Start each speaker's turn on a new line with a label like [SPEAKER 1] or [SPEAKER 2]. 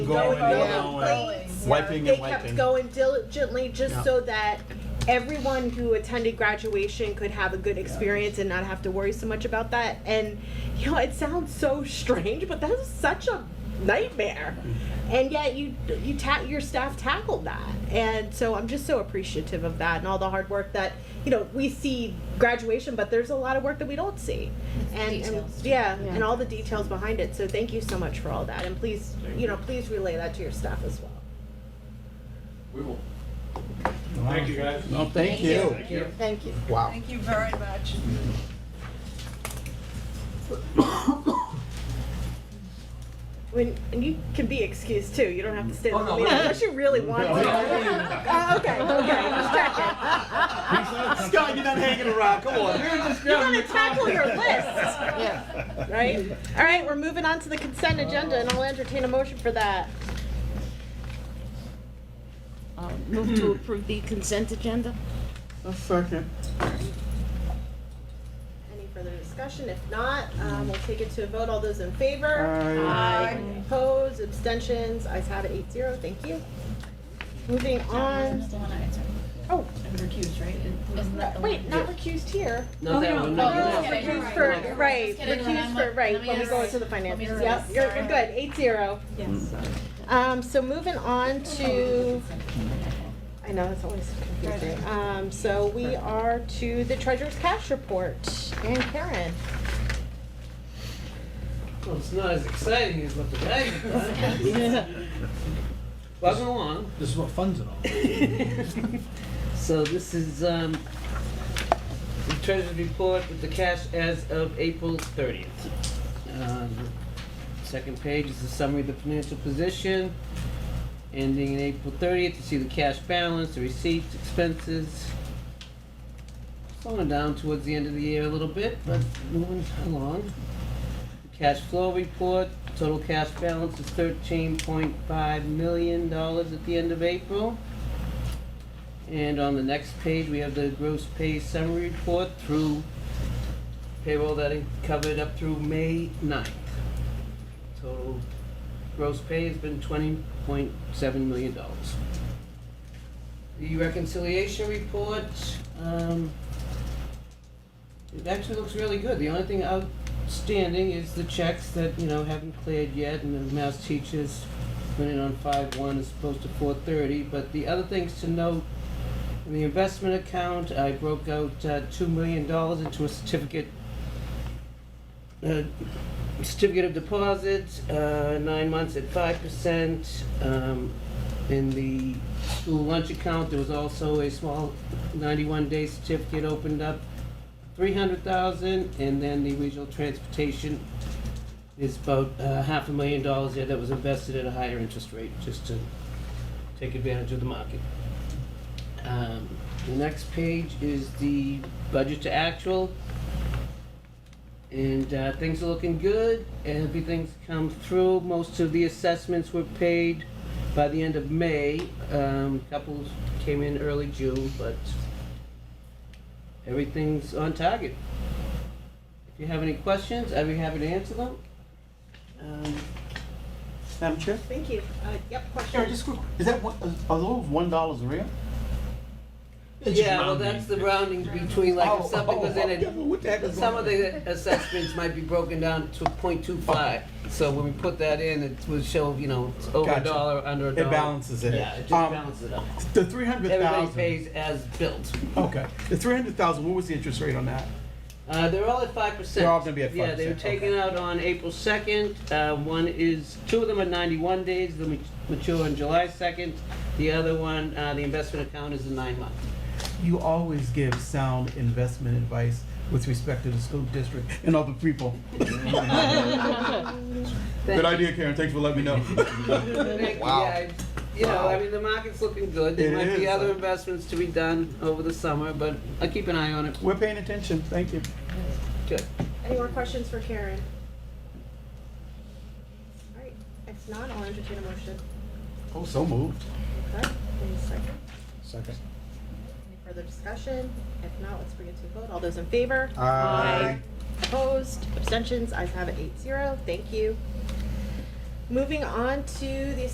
[SPEAKER 1] Going,
[SPEAKER 2] Going down,
[SPEAKER 1] going.
[SPEAKER 2] wiping
[SPEAKER 1] They
[SPEAKER 2] and
[SPEAKER 1] kept
[SPEAKER 2] wiping.
[SPEAKER 1] going diligently
[SPEAKER 2] Yeah.
[SPEAKER 1] just so that everyone who attended graduation could have a good experience and not have to worry so much about that. And, you know, it sounds so strange, but that's such a nightmare. And yet you, you ta- your staff tackled that. And so I'm just so appreciative of that and all the hard work that, you know, we see graduation, but there's a lot of work that we don't see. And, and
[SPEAKER 3] Details.
[SPEAKER 1] yeah,
[SPEAKER 3] Yeah.
[SPEAKER 1] and all the details behind it. So thank you so much for all that. And please, you know, please relay that to your staff as well.
[SPEAKER 4] We will.
[SPEAKER 2] Thank you,
[SPEAKER 4] guys.
[SPEAKER 2] No, thank you.
[SPEAKER 3] Thank you.
[SPEAKER 2] Wow.
[SPEAKER 5] Thank you very much.
[SPEAKER 1] When and you can be excused too. You don't have to stay.
[SPEAKER 4] Oh,
[SPEAKER 1] the
[SPEAKER 4] no,
[SPEAKER 1] meeting
[SPEAKER 4] wait.
[SPEAKER 1] unless you really want to. Oh, okay, okay, just checking.
[SPEAKER 2] Scott, you're not hanging around. Come on. You're just
[SPEAKER 1] You gotta tackle your list,
[SPEAKER 3] Yeah.
[SPEAKER 1] right? All right, we're moving on to the consent agenda, and I'll entertain a motion for that.
[SPEAKER 3] Uh, Move to approve the consent agenda?
[SPEAKER 2] A second.
[SPEAKER 1] Any further discussion? If not, um, we'll take it to a vote. All those in favor?
[SPEAKER 2] Aye.
[SPEAKER 1] Aye. Opposed, abstentions, ayes have it, eight zero, thank you. Moving on, oh, wait, Oh, not recused here.
[SPEAKER 6] No, that one, no,
[SPEAKER 3] no,
[SPEAKER 6] no.
[SPEAKER 3] no.
[SPEAKER 6] You're
[SPEAKER 1] Recused
[SPEAKER 6] right.
[SPEAKER 1] for,
[SPEAKER 6] You're
[SPEAKER 1] right,
[SPEAKER 3] Just kidding,
[SPEAKER 1] recused
[SPEAKER 3] I'm
[SPEAKER 1] for,
[SPEAKER 3] not-
[SPEAKER 1] right,
[SPEAKER 3] let me
[SPEAKER 1] when we go
[SPEAKER 3] erase.
[SPEAKER 1] into the finances,
[SPEAKER 3] erase,
[SPEAKER 1] yep, you're, you're
[SPEAKER 3] sorry.
[SPEAKER 1] good, eight zero.
[SPEAKER 5] Yes.
[SPEAKER 1] Um, so moving on to, I know, it's always confusing. Um, so we are to the treasurer's cash report, and Karen.
[SPEAKER 6] Well, it's not as exciting as what the guy thought. Buzzing along.
[SPEAKER 4] This is what funds it all.
[SPEAKER 6] So this is, um, the treasurer's report with the cash as of April thirtieth. Um, Second page is a summary of the financial position. Ending in April thirtieth, you see the cash balance, the receipts, expenses. Slowing down towards the end of the year a little bit, but moving along. Cash flow report, total cash balance is thirteen point five million dollars at the end of April. And on the next page, we have the gross pay summary report through payroll that it covered up through May 9th. Total gross pay has been twenty point seven million dollars. The reconciliation report, um, it actually looks really good. The only thing outstanding is the checks that, you know, haven't cleared yet, and the mass teachers went in on five one as opposed to four thirty, but the other things to note, in the investment account, I broke out, uh, two million dollars into a certificate, uh, certificate of deposit, uh, nine months at five percent, um, in the school lunch account, there was also a small ninety-one day certificate opened up three hundred thousand, and then the regional transportation is about uh, half a million dollars there that was invested at a higher interest rate, just to take advantage of the market. Um, The next page is the budget to actual. And uh, things are looking good, everything's come through, most of the assessments were paid by the end of May. Um, Couple came in early June, but everything's on target. If you have any questions, I'd be happy to answer them. Um,
[SPEAKER 2] Madam Chair?
[SPEAKER 1] Thank you. Uh, yep,
[SPEAKER 2] Karen,
[SPEAKER 1] question.
[SPEAKER 2] just quick, is that one, a low of one dollar's real? It's just
[SPEAKER 6] Yeah, well,
[SPEAKER 2] rounding.
[SPEAKER 6] that's the rounding between, like, if something was in
[SPEAKER 2] Oh, oh, oh, yeah, but what the heck
[SPEAKER 6] it,
[SPEAKER 2] is
[SPEAKER 6] some of
[SPEAKER 2] going
[SPEAKER 6] the assessments might be broken down to point two five. So when we put that in, it would show, you know, it's over a
[SPEAKER 2] Gotcha.
[SPEAKER 6] dollar, under a
[SPEAKER 2] It
[SPEAKER 6] dollar.
[SPEAKER 2] balances it.
[SPEAKER 6] Yeah, it just
[SPEAKER 2] Um,
[SPEAKER 6] balances it up.
[SPEAKER 2] The three hundred
[SPEAKER 6] Everybody
[SPEAKER 2] thousand.
[SPEAKER 6] pays as built.
[SPEAKER 2] Okay, the three hundred thousand, what was the interest rate on that?
[SPEAKER 6] Uh, they're all at five percent.
[SPEAKER 2] They're all gonna be at
[SPEAKER 6] Yeah, they were
[SPEAKER 2] 5%,
[SPEAKER 6] taken
[SPEAKER 2] okay.
[SPEAKER 6] out on April second. Uh, one is, two of them are ninety-one days, they mature on July second. The other one, uh, the investment account is a nine-month.
[SPEAKER 2] You always give sound investment advice with respect to the school district and other people. Good idea, Karen, thanks for letting me know. Wow.
[SPEAKER 6] Yeah, I- You know, I mean, the market's looking good. There
[SPEAKER 2] It
[SPEAKER 6] might be
[SPEAKER 2] is.
[SPEAKER 6] other investments to be done over the summer, but I keep an eye on it.
[SPEAKER 2] We're paying attention, thank you.
[SPEAKER 6] Good.
[SPEAKER 1] Any more questions for Karen? All right, if not, I'll entertain a motion.
[SPEAKER 2] Oh, so moved.
[SPEAKER 1] Okay, wait a second.
[SPEAKER 4] Second.
[SPEAKER 1] Any further discussion? If not, let's bring it to a vote. All those in favor?
[SPEAKER 2] Aye.
[SPEAKER 1] Opposed, abstentions, ayes have it eight zero. Thank you. Moving on to the